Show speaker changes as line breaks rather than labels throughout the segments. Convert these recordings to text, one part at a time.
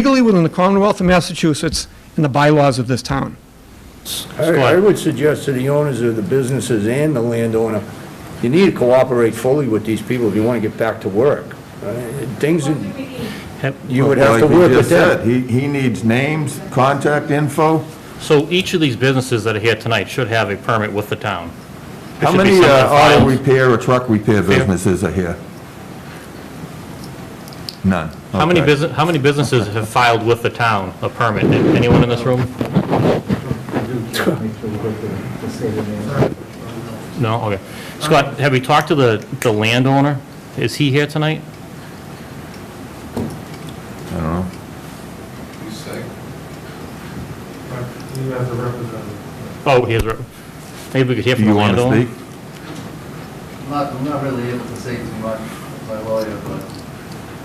legally within the Commonwealth of Massachusetts and the bylaws of this town.
I I would suggest to the owners of the businesses and the landowner, you need to cooperate fully with these people if you want to get back to work. Uh, Things, that you would have to
Like we
work with
just said,
that.
He, he needs names, contact info.
So each of these businesses that are here tonight should have a permit with the town. There
How
should be
many
something
uh, auto
filed.
repair or truck repair businesses are here? None.
How many
Okay.
business, how many businesses have filed with the town a permit? Anyone in this room? No, okay. Scott, have we talked to the, the landowner? Is he here tonight?
I don't know.
You have the representative.
Oh, he is, re- maybe we could hear
Do
from the
you want
landowner?
to speak?
I'm not, I'm not really able to say too much, my lawyer, but.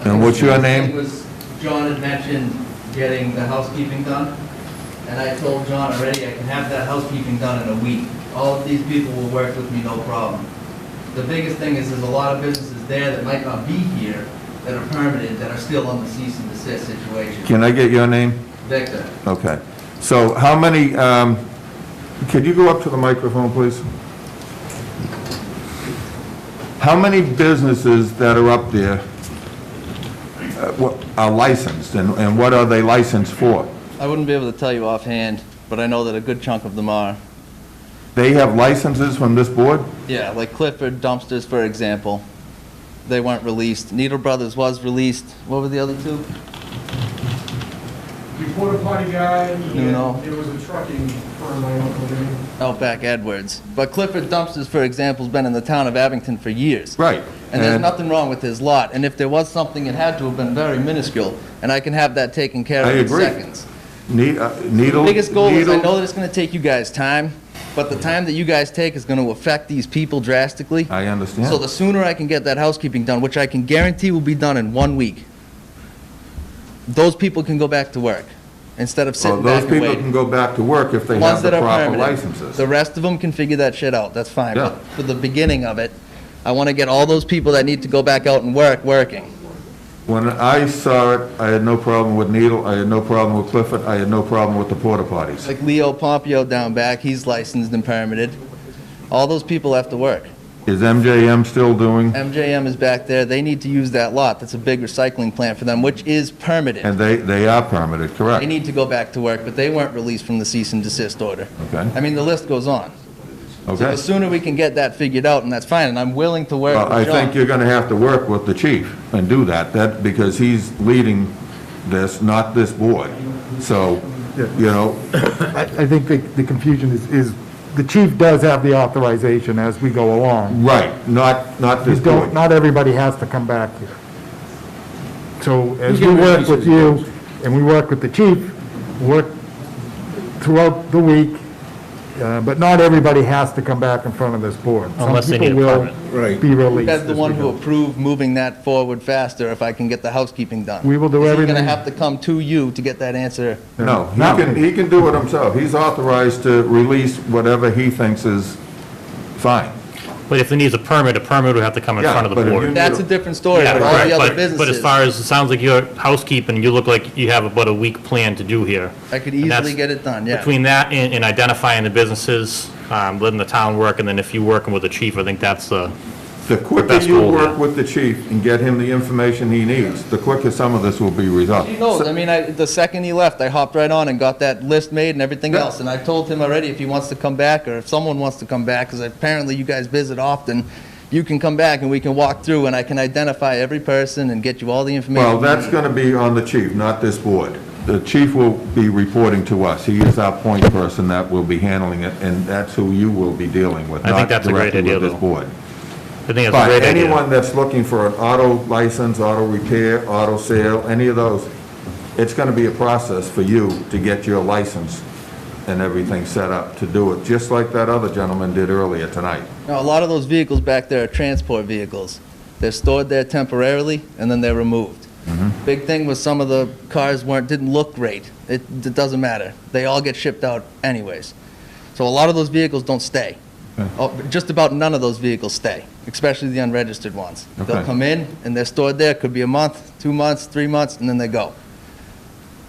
And what's your name?
It was, John had mentioned getting the housekeeping done, and I told John already I can have that housekeeping done in a week. All of these people will work with me, no problem. The biggest thing is, there's a lot of businesses there that might not be here, that are permitted, that are still on the cease and desist situation.
Can I get your name?
Victor,
Okay. So how many, um, could you go up to the microphone, please? How many businesses that are up there uh, what- are licensed, and and what are they licensed for?
I wouldn't be able to tell you offhand, but I know that a good chunk of them are.
They have licenses from this board?
Yeah, like Clifford Dumpsters, for example. They weren't released. Needle Brothers was released. What were the other two?
You porta potty guy,
No.
and there was a trucking firm my uncle did.
Outback Oh, Edwards. But Clifford Dumpsters, for example, has been in the town of Abington for years.
Right.
And there's nothing wrong with his lot. And if there was something, it had to have been very minuscule. And I can have that taken care
I
of in
agree.
seconds.
Ne- uh, Needle?
Biggest goal is, I
Needle-
know that it's going to take you guys time, but the time that you guys take is going to affect these people drastically.
I
So the
understand.
sooner I can get that housekeeping done, which I can guarantee will be done in one week, those people can go back to work instead of
Well,
sitting
those
back and
people can
waiting.
go back to work if they
Ones
have the
that are
proper
permitted.
licenses.
The rest of them can figure that shit out, that's fine.
Yeah.
But For the beginning of it, I want to get all those people that need to go back out and work, working.
When I saw it, I had no problem with Needle, I had no problem with Clifford, I had no problem with the porta potties.
Like Leo Pompeo down back, he's licensed and permitted. All those people have to work.
Is MJM still doing,
MJM is back there, they need to use that lot, that's a big recycling plant for them, which is permitted.
and they, they are permitted,
They
correct?
need to go back to work, but they weren't released from the cease and desist order.
Okay.
I mean, the list goes on. So
Okay.
the sooner we can get that figured out, and that's fine, and I'm willing to work
Well, I
with
think
John.
you're gonna have to work with the chief and do that, that, because he's leading this, not this board. So, you know,
I I think the- the confusion is, is the chief does have the authorization as we go along.
right, not, not
You
this board.
don't, not everybody has to come back here. So as
You
we
can
work
release
with
it.
you, and we work with the chief, work throughout the week, uh, but not everybody has to come back in front of this board. Some
Unless they need
people
a
will
permit.
Right.
Be released.
That's the
as
one
we
who
go.
approved moving that forward faster if I can get the housekeeping done.
We will do
He's
everything-
gonna have to come to you to get that answer.
No, he
No.
can, he can do it himself. He's authorized to release whatever he thinks is fine.
But if it needs a permit, a permit would have to come in
Yeah,
front of the
but if you-
board.
That's a different story
Yeah,
for all
correct,
the other
but, but as
businesses.
far as, it sounds like your housekeeping, you look like you have about a week plan to do here.
I could
And that's-
easily get it done, yeah.
Between that and, and identifying the businesses, um, letting the town work, and then if you're working with the chief, I think that's uh, the,
The quicker
That's
you
cool,
work
yeah.
with the chief and get him the information he needs, the quicker some of this will be resolved.
He knows, I mean, I, the second he left, I hopped right on and got that list made and everything
Yeah.
else, and I told him already if he wants to come back, or if someone wants to come back, because apparently you guys visit often, you can come back and we can walk through, and I can identify every person and get you all the information.
Well,
you
that's
need.
going to be on the chief, not this board. The chief will be reporting to us. He is our point person that will be handling it, and that's who you will be dealing with,
I think
not
that's a great
directly
idea,
with this
though.
board.
I think that's a
But
great idea.
anyone that's looking for an auto license, auto repair, auto sale, any of those, it's going to be a process for you to get your license and everything set up to do it, just like that other gentleman did earlier tonight.
Now, a lot of those vehicles back there are transport vehicles. They're stored there temporarily, and then they're removed. Big thing was some of the cars weren't, didn't look great. It, it doesn't matter. They all get shipped out anyways. So a lot of those vehicles don't stay. Oh, Just about none of those vehicles stay, especially the unregistered ones. They'll
Okay.
come in, and they're stored there, could be a month, two months, three months, and then they go.